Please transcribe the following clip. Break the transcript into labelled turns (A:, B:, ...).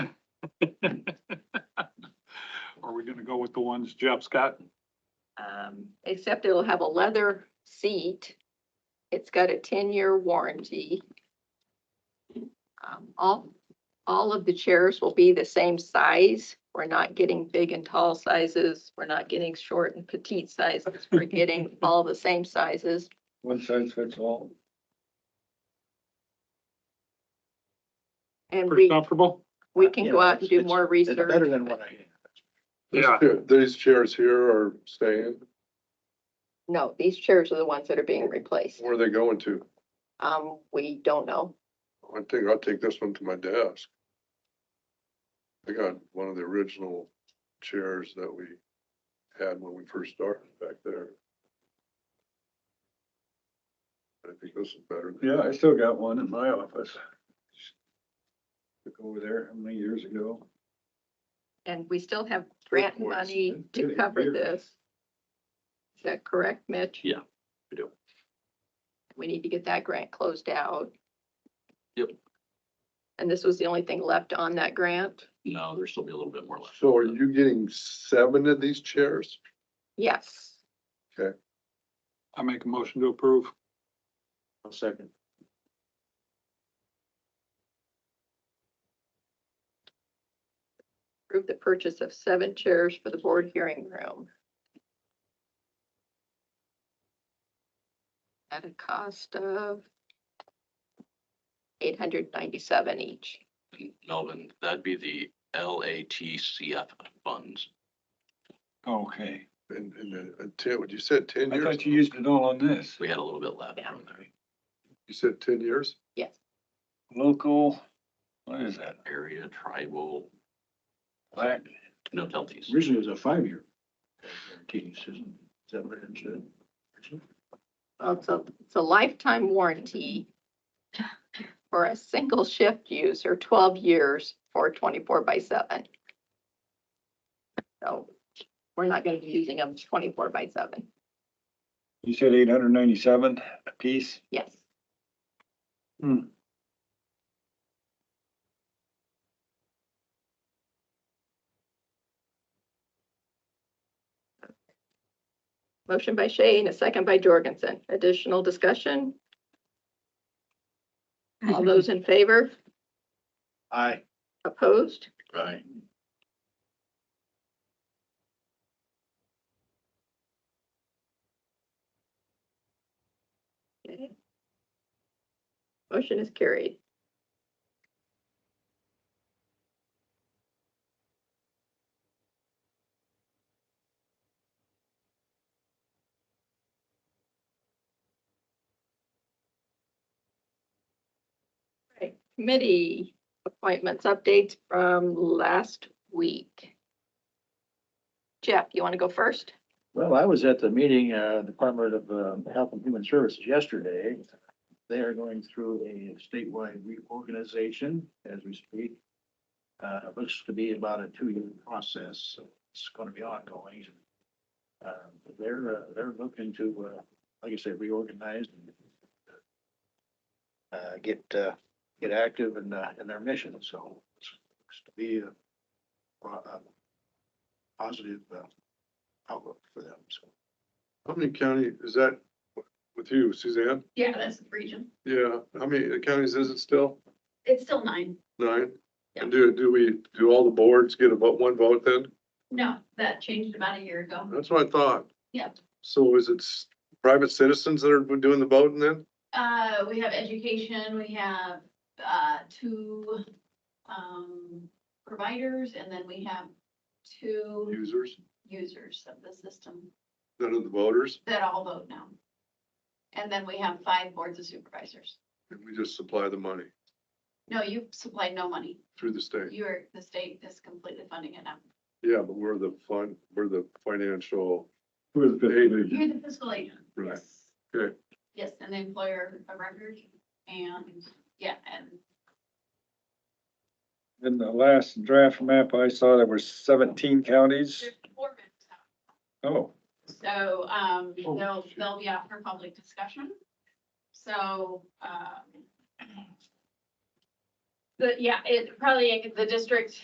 A: gonna go with the ones Jeff's got.
B: Um, except it'll have a leather seat. It's got a ten-year warranty. Um, all, all of the chairs will be the same size. We're not getting big and tall sizes. We're not getting short and petite sizes. We're getting all the same sizes.
C: One size fits all.
B: And
A: Pretty
B: we,
A: comfortable?
B: we can
C: Yeah,
B: go out and do
C: it's-
B: more
C: It's
B: research.
C: better than what I had.
A: Yeah.
D: These chairs here are staying.
B: No, these chairs are the ones that are being replaced.
D: Where are they going to?
B: Um, we don't know.
D: I think I'll take this one to my desk. I got one of the original chairs that we had when we first started back there. I think this is better.
C: Yeah, I still got one in my office. Took over there how many years ago?
B: And we still have grant
D: course.
B: money to
C: Getting
B: cover
C: bigger.
B: this. Is that correct, Mitch?
E: Yeah, we do.
B: We need to get that grant closed out.
E: Yep.
B: And this was the only thing left on that grant?
E: No, there'll still be a little bit more left.
D: So are you getting seven of these chairs?
B: Yes.
A: I make a motion to approve.
C: A second.
B: Approve the purchase of seven chairs for the board hearing room. At a cost of eight hundred ninety-seven each.
E: Melvin, that'd be the LATCF funds.
C: Okay,
D: And, and then a ten, what you said, ten
C: I
D: years?
C: thought you used it all on this.
E: We had a little bit left from there.
D: You said ten years?
B: Yes.
C: Local, what is that?
E: Area, tribal,
C: Black.
E: no penalties.
C: Originally it was a five-year. guarantee, Susan. Is that what it said?
B: Well, it's a, it's a lifetime warranty for a single shift use or twelve years for twenty-four by seven. So we're not gonna be using them twenty-four by seven.
C: You said eight hundred ninety-seven a piece?
B: Yes. Motion by Shay and a second by Jorgensen. Additional discussion? All those in favor?
C: Aye.
B: Opposed?
C: Aye.
B: Okay. Motion is carried. Right, committee appointments, updates from last week. Jeff, you want to go first?
F: Well, I was at the meeting, uh, Department of um, Health and Human Services yesterday. They are going through a statewide reorganization as we speak. Uh, it looks to be about a two-year process, so it's gonna be ongoing. Uh, they're, uh, they're looking to, uh, like I said, reorganize and uh, get, uh, get active in, uh, in their mission, so it's looks to be a pro- a positive, uh, outlook for them, so.
D: How many county, is that with you, Suzanne?
G: Yeah, that's the region.
D: Yeah, how many counties is it still?
G: It's still nine.
D: Nine? And do, do we, do all the boards get a vote, one vote then?
G: No, that changed about a year ago.
D: That's what I thought.
G: Yep.
D: So is it s- private citizens that are doing the voting then?
G: Uh, we have education, we have, uh, two, um, providers, and then we have two
D: Users,
G: users of the system
D: none of the voters,
G: that all vote now. And then we have five boards of supervisors.
D: and we just supply the money
G: No, you supplied no money.
D: through the state.
G: You are, the state is completely funding it now.
D: Yeah, but we're the fund, we're the financial.
C: Who is
D: aid
G: You're the fiscal agent.
D: Right.
G: Yes.
D: Okay.
G: Yes, and the employer of record, and, yeah, and
C: In the last draft map I saw, there were seventeen counties.
G: there's four minutes out.
C: Oh,
G: So, um,
D: Oh,
G: they'll,
D: shoot.
G: they'll be out for public discussion. So, um. But yeah, it probably, the district